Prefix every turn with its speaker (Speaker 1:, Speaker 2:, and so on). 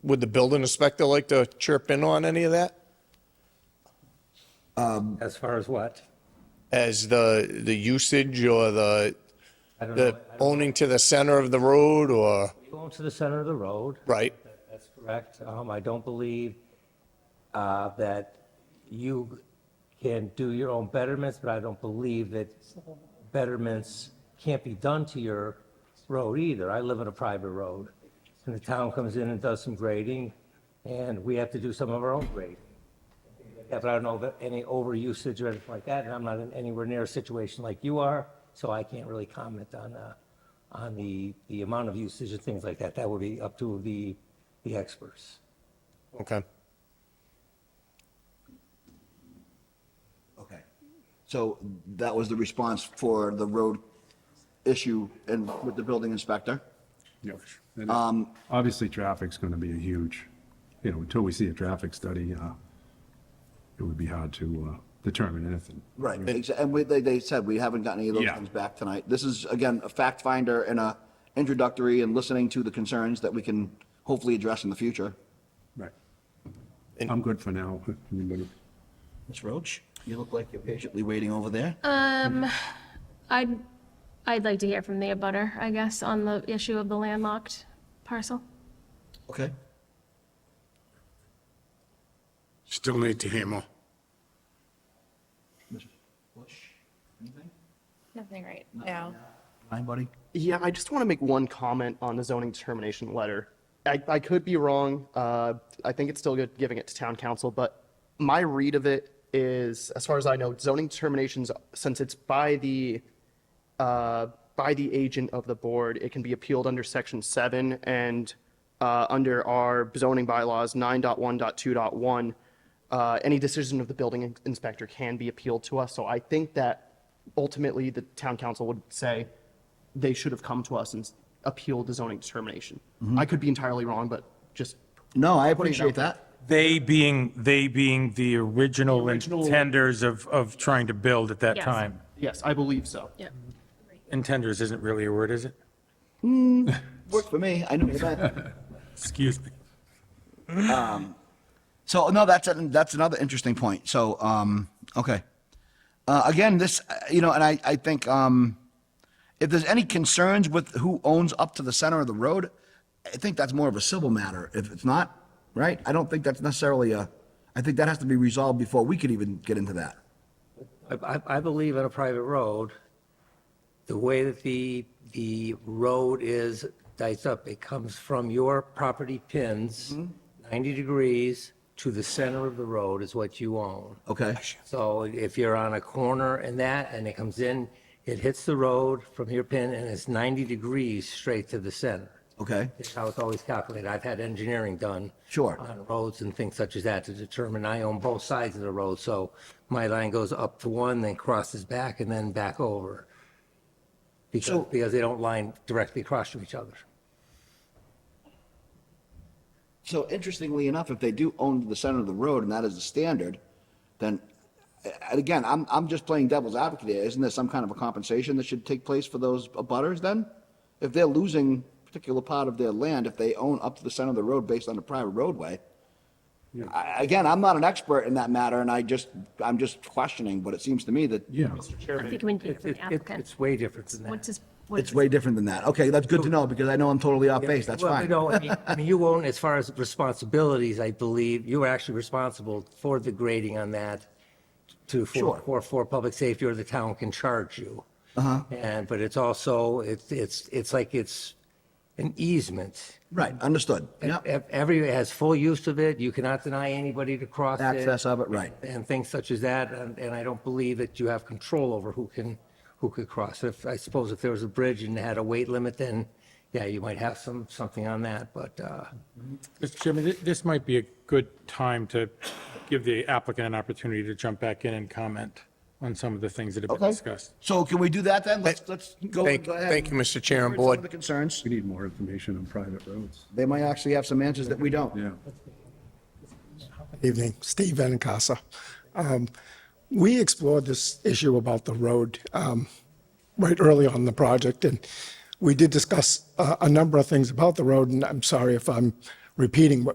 Speaker 1: Would the building inspector like to chirp in on any of that?
Speaker 2: As far as what?
Speaker 1: As the, the usage or the,
Speaker 2: I don't know.
Speaker 1: the owning to the center of the road or,
Speaker 2: You own to the center of the road.
Speaker 1: right?
Speaker 2: That- That's correct. Um, I don't believe, uh, that you can do your own betterments, but I don't believe that betterments can't be done to your road either. I live on a private road. And the town comes in and does some grading, and we have to do some of our own grading. Yeah, but I don't know that any overusage or anything like that, and I'm not in anywhere near a situation like you are, so I can't really comment on, uh, on the, the amount of usage and things like that. That would be up to the, the experts.
Speaker 1: Okay.
Speaker 3: Okay. So that was the response for the road issue and with the building inspector?
Speaker 4: Yes. And Obviously, traffic's going to be a huge, you know, until we see a traffic study, uh, it would be hard to uh, determine anything.
Speaker 3: Right. exa- And we, they, they said we haven't gotten any of those
Speaker 4: Yeah.
Speaker 3: things back tonight. This is, again, a fact finder and a introductory and listening to the concerns that we can hopefully address in the future.
Speaker 4: Right. I'm good for now. Anybody?
Speaker 3: Ms. Roach, you look like you're patiently waiting over there.
Speaker 5: Uh,
Speaker 6: Um,
Speaker 2: Mm-hmm.
Speaker 6: I'd, I'd like to hear from the abutter, I guess, on the issue of the landlocked parcel.
Speaker 3: Okay.
Speaker 7: Still need to hear more.
Speaker 3: Ms. Bush, anything?
Speaker 5: Nothing right now.
Speaker 3: Hi, buddy.
Speaker 8: Yeah, I just want to make one comment on the zoning determination letter. I, I could be wrong. Uh, I think it's still good giving it to town council, but my read of it is, as far as I know, zoning determinations, since it's by the, uh, by the agent of the board, it can be appealed under section seven and, uh, under our zoning bylaws, 9.1.2.1. Uh, any decision of the building in- inspector can be appealed to us. So I think that ultimately the town council would say, they should have come to us and s- appealed the zoning determination. I could be entirely wrong, but just,
Speaker 3: No, I appreciate that.
Speaker 9: They being, they being the original intenders of, of trying to build at that
Speaker 6: Yes.
Speaker 9: time.
Speaker 8: yes, I believe so.
Speaker 6: Yep.
Speaker 9: Intenders isn't really a word, is it?
Speaker 3: Worked for me. I knew what you meant.
Speaker 9: Excuse me.
Speaker 3: So no, that's that's another interesting point. So um, okay, uh, again, this uh, you know, and I I think um, if there's any concerns with who owns up to the center of the road, I think that's more of a civil matter. If it's not right, I don't think that's necessarily a. I think that has to be resolved before we could even get into that.
Speaker 2: I, I, I believe on a private road, the way that the, the road is diced up, it comes from your property pins, 90 degrees to the center of the road is what you own.
Speaker 3: Okay.
Speaker 2: So if you're on a corner and that, and it comes in, it hits the road from your pin and it's 90 degrees straight to the center.
Speaker 3: Okay.
Speaker 2: That's how it's always calculated. I've had engineering done.
Speaker 3: Sure.
Speaker 2: On roads and things such as that to determine I own both sides of the road. So my line goes up to one, then crosses back and then back over. Because, because they don't line directly across from each other.
Speaker 3: So interestingly enough, if they do own the center of the road and that is the standard, then, and again, I'm, I'm just playing devil's advocate here. Isn't there some kind of a compensation that should take place for those abutters then? If they're losing a particular part of their land, if they own up to the center of the road based on a private roadway, I, again, I'm not an expert in that matter and I just, I'm just questioning, but it seems to me that
Speaker 4: Yeah.
Speaker 6: I think we need to hear from
Speaker 2: It-
Speaker 6: the
Speaker 2: it-
Speaker 6: applicant.
Speaker 2: It's way different than that.
Speaker 6: What's his, what's
Speaker 3: it's
Speaker 6: his
Speaker 3: way different than that. Okay, that's good to know because I know I'm totally off base. That's
Speaker 2: Well,
Speaker 3: fine.
Speaker 2: no, I mean- I mean, you own, as far as responsibilities, I believe, you were actually responsible for the grading on that to, for,
Speaker 3: Sure. Uh-huh.
Speaker 2: for, for public safety, or the town can charge you. And, but it's also, it's, it's, it's like it's an easement.
Speaker 3: Right, understood. Yep.
Speaker 2: Ev- Everyone has full use of it. You cannot deny anybody to cross it.
Speaker 3: Access of it, right.
Speaker 2: And things such as that. And, and I don't believe that you have control over who can, who could cross. If, I suppose if there was a bridge and had a weight limit, then yeah, you might have some, something on that. But, uh,
Speaker 9: Mr. Chairman, thi- this might be a good time to give the applicant an opportunity to jump back in and comment on some of the things that have been
Speaker 3: Okay.
Speaker 9: discussed.
Speaker 3: So can we do that then? Let's, let's go, go ahead.
Speaker 1: Thank, thank you, Mr. Chair and
Speaker 3: Heard Some of the
Speaker 1: Board.
Speaker 3: concerns,
Speaker 4: We need more information on private roads.
Speaker 3: they might actually have some answers that we don't.
Speaker 4: Yeah.
Speaker 7: Evening, Steve Benincasa. Um, We explored this issue about the road um, right early on in the project, and we did discuss uh, a number of things about the road, and I'm sorry if I'm repeating what